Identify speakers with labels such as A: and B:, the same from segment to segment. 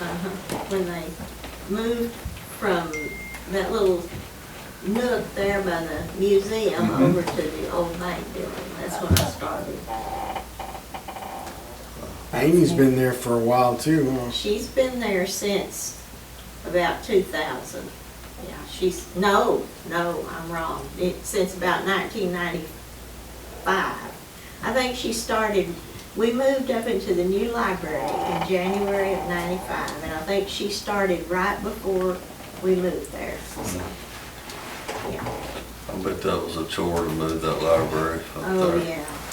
A: uh-huh, when they moved from that little nook there by the museum
B: Mhm.
A: over to the old bank building, that's when I started.
B: Amy's been there for a while too, huh?
A: She's been there since about two thousand. Yeah, she's, no, no, I'm wrong, it, since about nineteen ninety-five. I think she started, we moved up into the new library in January of ninety-five, and I think she started right before we moved there, so. Yeah,
C: I bet that was a chore to move that library up
A: oh,
C: there.
A: yeah.
C: I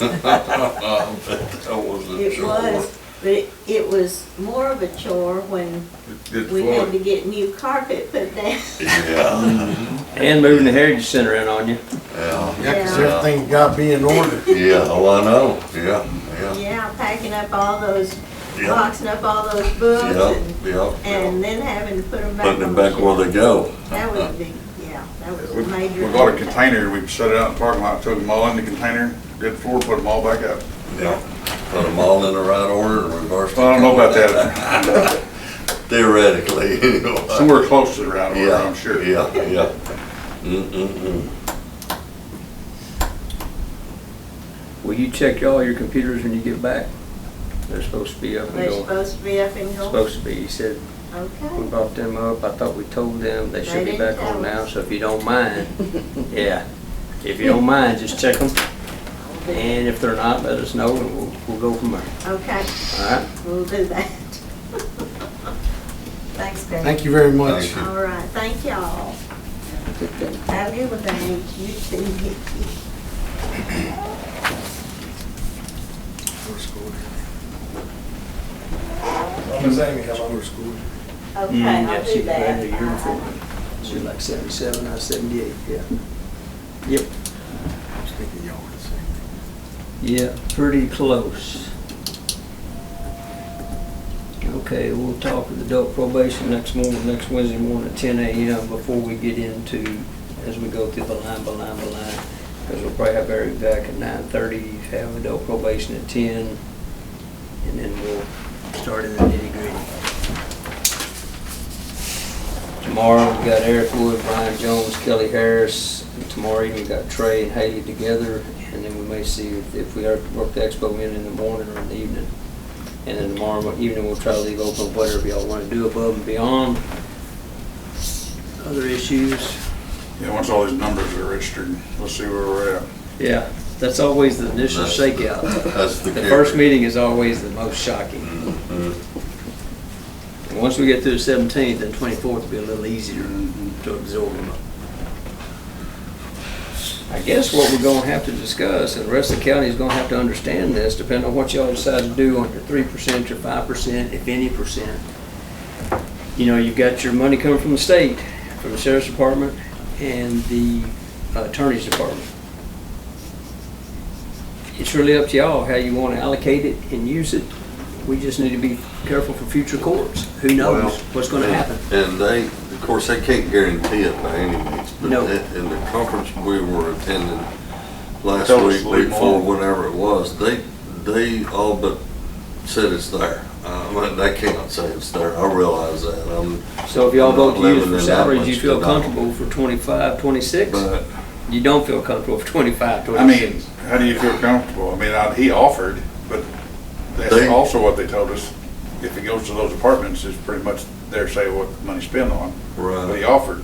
C: bet that was a
A: It
C: chore.
A: was, but it, it was more of a chore when
C: Good
A: we had to
C: point.
A: get new carpet put down.
C: Yeah,
D: And moving the Heritage Center in on you.
C: yeah,
B: Yeah, 'cause
A: Yeah.
B: everything got to be in order.
C: yeah, oh, I know, yeah, yeah,
A: Yeah, packing up all those,
C: yeah,
A: boxing up all those
C: yeah,
A: books and,
C: yeah.
A: and then having to put them back. on
C: Putting them
A: the
C: back where they
A: shelf.
C: go.
A: That was big, yeah, that was
E: We
A: a major.
E: we got a
A: undertaking.
E: container, we set it out in the parking lot, took them all in the container, did the floor, put them all back up.
C: Yeah, put them all in the right order and reverse.
E: Well, I don't know about that.
C: Theoretically, anyway.
E: Somewhere close to the round order,
C: Yeah,
E: I'm sure.
C: Yeah, yeah. Mm-mm-mm.
D: Will you check all your computers when you get back? They're supposed to be up and
A: They're
D: going.
A: supposed to be up and going,
D: Supposed to be, you said, we
A: okay.
D: brought them up, I thought we told them, they should
A: They
D: be
A: didn't
D: back on
A: tell
D: now,
A: us.
D: so if you don't mind, yeah. If you don't mind, just check them,
A: I'll do-
D: and if they're not, let us know, and we'll, we'll go from there,
A: Okay,
D: all right?
A: we'll do that. Thanks, Dave.
B: Thank you very much.
C: Thank you.
A: All right, thank y'all. Have a good one, thank you too, Nikki.
B: Miss Amy, how
A: Okay, I'll do that.
D: Mm,
A: Uh-huh.
D: She She's like seventy-seven, I was seventy-eight, yeah. Yep, yeah, pretty close. Okay, we'll talk with adult probation next morning, next Wednesday morning at ten AM before we get into, as we go through the line by line by line. Because we'll probably have Eric back at nine thirty, have adult probation at ten, and then we'll start in the nitty gritty. Tomorrow, we got Eric Wood, Brian Jones, Kelly Harris. And Tomorrow evening, we got Trey and Haley together, and then we may see if- if we are to work the expo in in the morning or in the evening. And then tomorrow mo- evening, we'll try to leave open whatever y'all want to do above and beyond. Other issues?
E: Yeah, once all these numbers are registered, let's see where we're at.
D: Yeah, that's always the initial
C: That's-
D: shakeout.
C: That's the
D: The
C: kicker.
D: first meeting is always the most shocking.
C: Mhm.
D: And once we get through the seventeenth, and twenty-fourth will be a little easier to absorb them. I guess what we're gonna have to discuss, and the rest of the county is gonna have to understand this, depending on what y'all decide to do on your three percent, your five percent, if any percent. You know, you've got your money coming from the state, from the sheriff's department and the attorney's department. It's really up to y'all how you wanna allocate it and use it. We just need to be careful for future courts. Who
C: Well,
D: knows what's gonna
C: and-
D: happen?
C: And they, of course, they can't guarantee it by any means, but
D: No.
C: in in the conference we were attending last
E: Tell us
C: week,
E: a little
C: week four,
E: more.
C: whenever it was, they, they all but said it's there. Uh, well, they cannot say it's there, I realize that, um,
D: So if y'all vote to use
C: Living in
D: for
C: that
D: salaries, you
C: much
D: feel
C: to
D: comfortable for twenty-five, twenty-six?
C: but
D: You don't feel comfortable for twenty-five,
E: I mean,
D: twenty-six?
E: how do you feel comfortable? I mean, I- he offered, but that's
C: They-
E: also what they told us. If it goes to those apartments, it's pretty much their say what the money's spent on. But
C: Right.
E: he offered,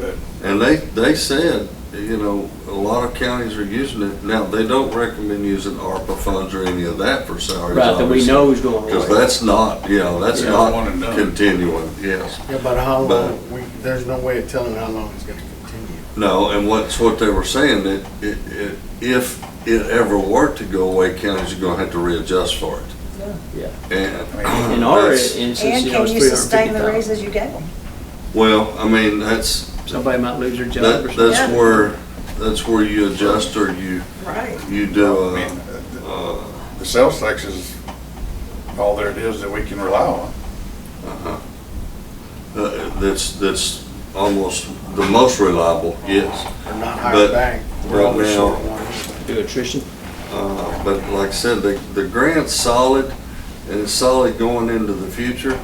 E: but
C: And they, they said, you know, a lot of counties are using it. Now, they don't recommend using ARPA funds or any of that for salaries.
D: Right, that we know is going
C: Because
D: away.
C: that's not, you know, that's
E: Yeah, one
C: not
E: and done.
C: continuing, yes.
B: Yeah, but how
C: But-
B: long, we, there's no way of telling how long it's gonna continue.
C: No, and what's what they were saying, that it, it, if it ever were to go away, counties are gonna have to readjust for it.
D: Yeah.
C: And.
D: In our
C: Uh, that's-
D: instance,
F: And
D: you know,
F: can
D: it's
F: you
D: three hundred
F: sustain
D: fifty
F: the
D: thousand.
F: raises you gave them?
C: Well, I mean, that's,
D: Somebody might lose their job
C: that,
D: or something.
C: that's where, that's where you adjust or you,
F: Right.
C: you do
E: I
C: a,
E: mean,
C: uh,
E: the sales tax is all there it is that we can rely on.
C: Uh-huh. Uh, That's, that's almost the most reliable, yes.
B: We're not
C: But
B: hired back. We're
C: right
B: always
C: now-
B: short one.
D: Do attrition.
C: Uh, But like I said, the, the grant's solid, and it's solid going into the future.